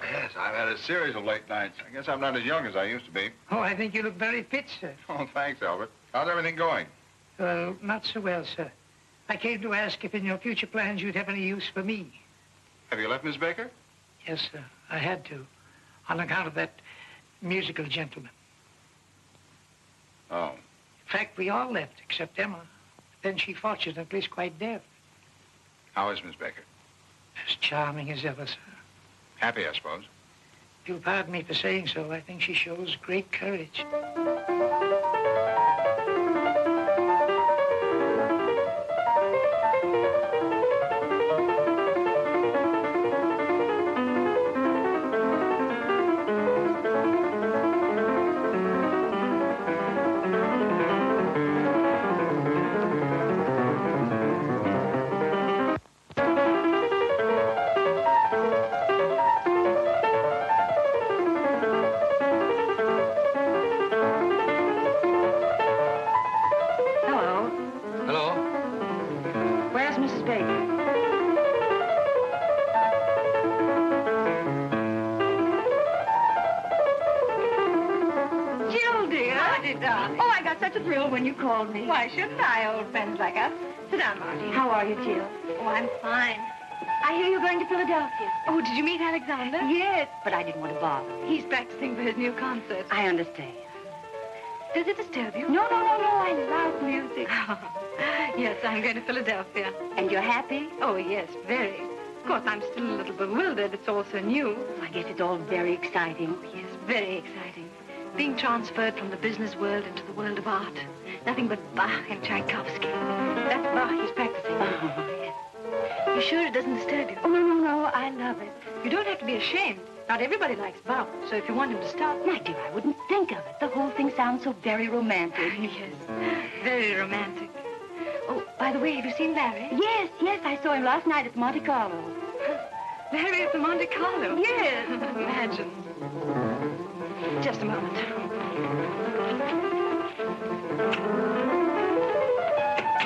I've had a series of late nights. I guess I'm not as young as I used to be. Oh, I think you look very fit, sir. Oh, thanks, Albert. How's everything going? Well, not so well, sir. I came to ask if in your future plans you'd have any use for me. Have you left Miss Baker? Yes, sir. I had to, on account of that musical gentleman. Oh. In fact, we all left, except Emma. Then she fortunately is quite deaf. How is Miss Baker? As charming as ever, sir. Happy, I suppose. If you'll pardon me for saying so, I think she shows great courage. Hello. Hello? Where's Mrs. Baker? Jill, dear. Howdy, darling. Oh, I got such a thrill when you called me. Why shouldn't I, old friends like us? Sit down, Marty. How are you, Jill? Oh, I'm fine. I hear you're going to Philadelphia. Oh, did you meet Alexander? Yes, but I didn't want to bother. He's practicing for his new concert. I understand. Does it disturb you? No, no, no, no. I love music. yes, I'm going to Philadelphia. And you're happy? Oh, yes, very. Of course, I'm still a little bewildered. It's all so new. I guess it's all very exciting. Yes, very exciting. Being transferred from the business world into the world of art. Nothing but Bach and Tchaikovsky. That's Bach he's practicing. Oh, You sure it doesn't disturb you? no, no, no. I love it. You don't have to be ashamed. Not everybody likes Bach, so if you want him to stop, My dear, I wouldn't think of it. The whole thing sounds so very romantic. Yes, very romantic. Oh, by the way, have you seen Larry? Yes, yes, I saw him last night at Monte Carlo. Larry at the Monte Carlo. Yes. Imagine. Just a moment.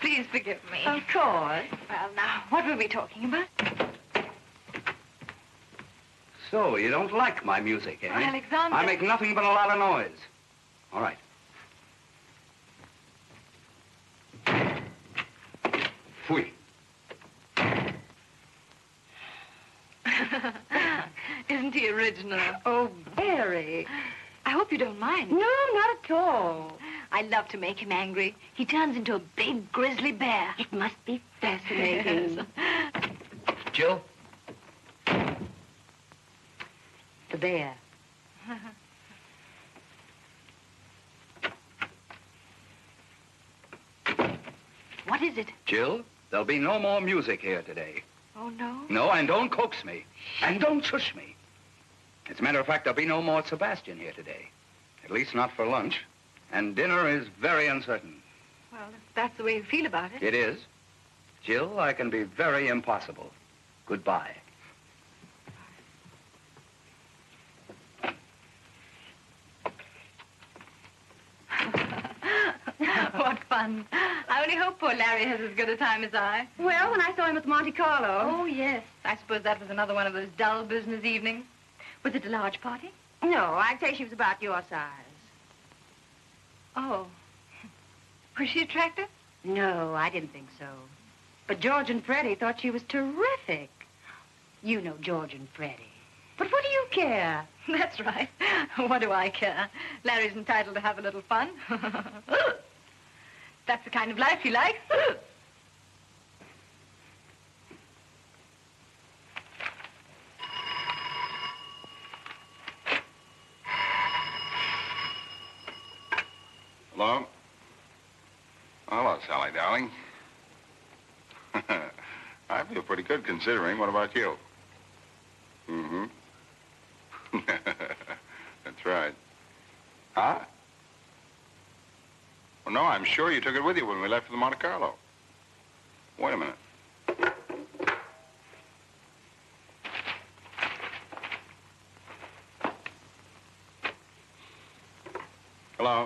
Please forgive me. Of course. Oh, Well, now, what were we talking about? So, you don't like my music, eh? Oh, Alexander. I make nothing but a lot of noise. All right. Fui. Isn't he original? Oh, very. I hope you don't mind. No, not at all. I love to make him angry. He turns into a big grizzly bear. It must be fascinating. Jill? The bear. What is it? Jill, there'll be no more music here today. Oh, no. No, and don't coax me. And don't shush me. As a matter of fact, there'll be no more Sebastian here today. At least not for lunch. And dinner is very uncertain. Well, if that's the way you feel about it. It is. Jill, I can be very impossible. Goodbye. what fun. I only hope poor Larry has as good a time as I. Well, when I saw him at Monte Carlo. Oh, yes. I suppose that was another one of those dull business evenings. Was it a large party? No, I'd say she was about your size. Oh. Was she attractive? No, I didn't think so. But George and Freddie thought she was terrific. You know George and Freddie. But what do you care? That's right. What do I care? Larry's entitled to have a little fun. That's the kind of life he likes. Hello? Hello, Sally, darling. I feel pretty good considering. What about you? Mm-hmm. That's right. Huh? Well, no, I'm sure you took it with you when we left for the Monte Carlo. Wait a minute.